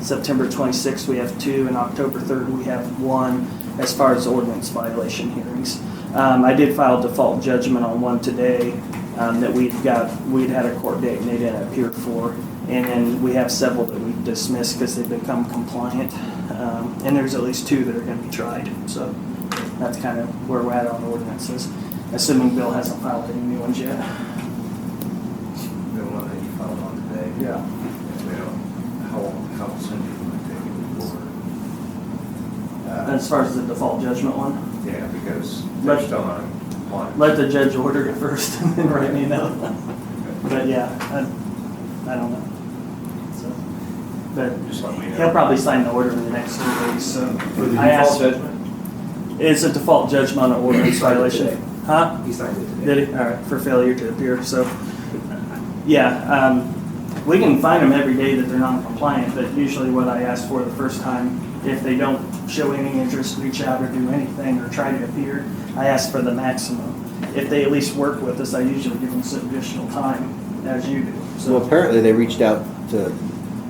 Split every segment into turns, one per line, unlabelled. September 26th, we have two, and October 3rd, we have one as far as ordinance violation hearings. Um, I did file default judgment on one today um, that we'd got, we'd had a court date and they didn't appear for. And then we have several that we dismissed because they've become compliant. Um, And there's at least two that are going to be tried, so that's kind of where we're at on ordinances, assuming Bill hasn't filed any new ones yet.
The one that you filed on today?
Yeah.
Well, how, how soon do you take it before? Uh,
As far as the default judgment one,
Yeah, because
Let-
they're still on one.
let the judge order it first and then write me another one.
Okay.
But yeah, I, I don't know. So, But
Just let me
he'll
know.
probably sign the order in the next few days, so.
For the
I
default
asked-
judgment?
It's a default judgment on ordinance
Signed it
violation.
today.
Huh?
He signed it today.
Did he? All right, for failure to appear, so. Yeah, um, we can find them every day that they're non-compliant, but usually what I ask for the first time, if they don't show any interest, reach out or do anything or try to appear, I ask for the maximum. If they at least work with us, I usually give them some additional time, as you do,
So
so.
apparently they reached out to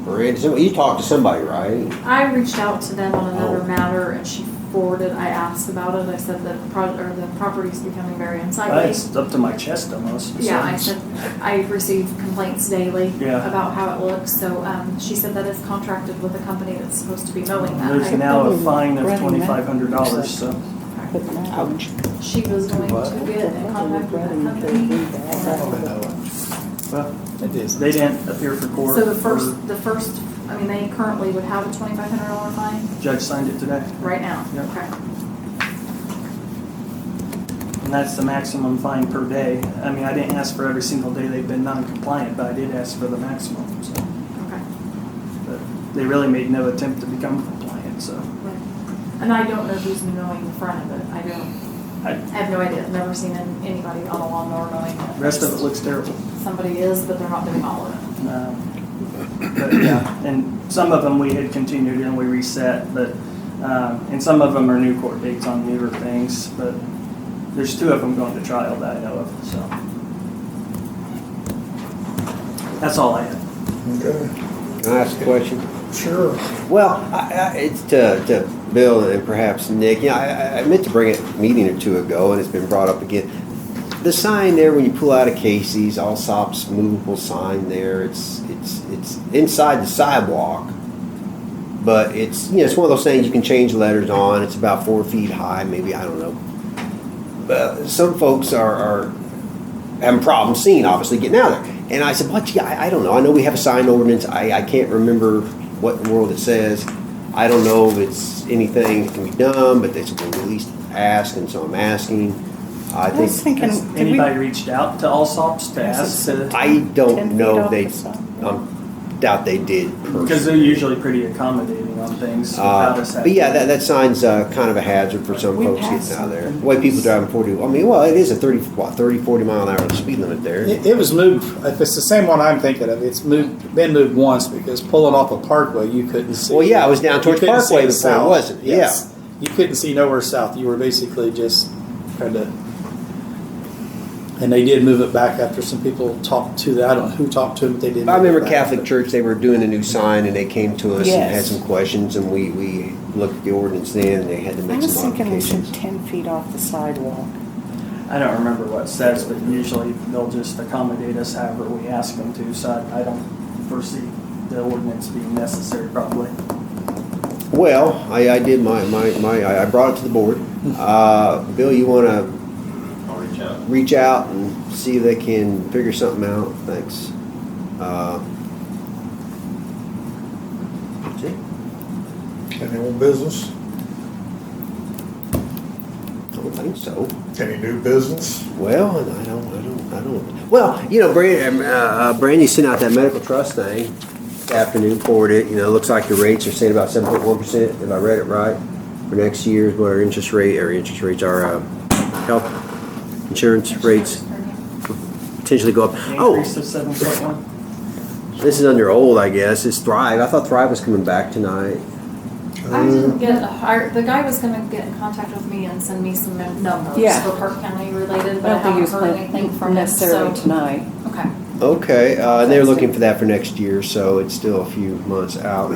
Miranda. So you talked to somebody, right?
I reached out to them on another
Oh.
matter and she forwarded, I asked about it, I said that the pro, or the property's becoming very unsightly.
It's up to my chest almost. so.
Yeah, I said, I receive complaints daily
Yeah.
about how it looks, so, um, she said that it's contracted with a company that's supposed to be mowing that.
There's
I-
now a fine of
Running that.
twenty-five hundred dollars, so.
Ouch.
She was going to get in contact with that company.
Well, They didn't appear for court.
So the
or
first, the first, I mean, they currently would have a twenty-five hundred dollar fine
Judge signed it today,
right now.
Yeah.
Okay.
and that's the maximum fine per day. I mean, I didn't ask for every single day they've been non-compliant, but I did ask for the maximum, so.
Okay.
but They really made no attempt to become compliant, so.
And I don't know who's mowing the front of it. I don't,
I-
I have no idea. I've never seen an- anybody on a lawnmower mowing it.
Rest of it looks terrible.
Somebody is, but they're not doing all of it.
Um, But yeah, and some of them we had continued and we reset, but, um, and some of them are new court dates on newer things, but there's two of them going to trial that I know of, so. That's all I have.
Okay,
Can I ask a question?
sure.
Well, I, I, it's to, to Bill and perhaps Nick. You know, I- I, I meant to bring it a meeting or two ago, and it's been brought up again. The sign there when you pull out of Casey's, Allsop's movable sign there. It's it's it's inside the sidewalk, but it's you know it's one of those things you can change letters on. It's about four feet high, maybe I don't know. But some folks are, are having problems seeing, obviously, getting out of there. And I said, what, gee, I, I don't know. I know we have a sign ordinance. I, I can't remember what in the world it says. I don't know if it's anything that can be done, but they said, well, at least ask, and so I'm asking. I
I was
think,
thinking,
Has
did we,
anybody reached out to Allsops to
Yes,
ask to,
I
Ten
don't
feet
know
off
if they,
the side.
um, doubt they did.
because they're usually pretty accommodating on things without
Uh,
us
but
having.
yeah, that, that sign's uh, kind of a hazard for some
We
folks
passed
getting out of there.
something.
Way people driving 40, I mean, well, it is a 30, what, 30, 40 mile an hour speed limit there.
It, it was moved, if it's the same one I'm thinking of, it's moved, been moved once because pulling off a parkway, you couldn't see.
Well, yeah, I was down
you
towards
couldn't see
Parkway
the
before,
south.
wasn't it?
Yes. You couldn't see nowhere south. You were basically just kind of. And they did move it back after some people talked to that. I don't know who talked to them, but they did.
I
move it
remember
back.
Catholic Church, they were doing a new sign and they came to us and had
Yes.
some questions and we, we looked at the ordinance then and they had to
I
make
was
some
thinking we should
modifications.
ten feet off the sidewalk.
I don't remember what it says, but usually they'll just accommodate us however we ask them to, so I- I don't foresee the ordinance being necessary probably.
Well, I, I did my, my, my, I I brought it to the board. Uh, Bill, you wanna
I'll reach out.
reach out and see if they can figure something out? Thanks. Uh, that's it.
Any old business?
I don't think so.
Any new business?
Well, and I don't, I don't, I don't. Well, you know, Brandy, uh, uh, Brandy sent out that medical trust thing this afternoon, forwarded it. You know, looks like the rates are saying about seven point one percent, if I read it right, for next year's what our interest rate, our interest rates, our uh, health insurance rates potentially go up. Oh,
Increase of seven point one?
this is under old, I guess. It's Thrive. I thought Thrive was coming back tonight.
I didn't get a hard, the guy was gonna get in contact with me and send me some num- numbers
Yeah.
for Park County related,
I
but I
don't think he
haven't
was
heard anything
planning
from him, so.
necessarily tonight.
Okay.
Okay, uh, and they're looking for that for next year, so it's still a few months out.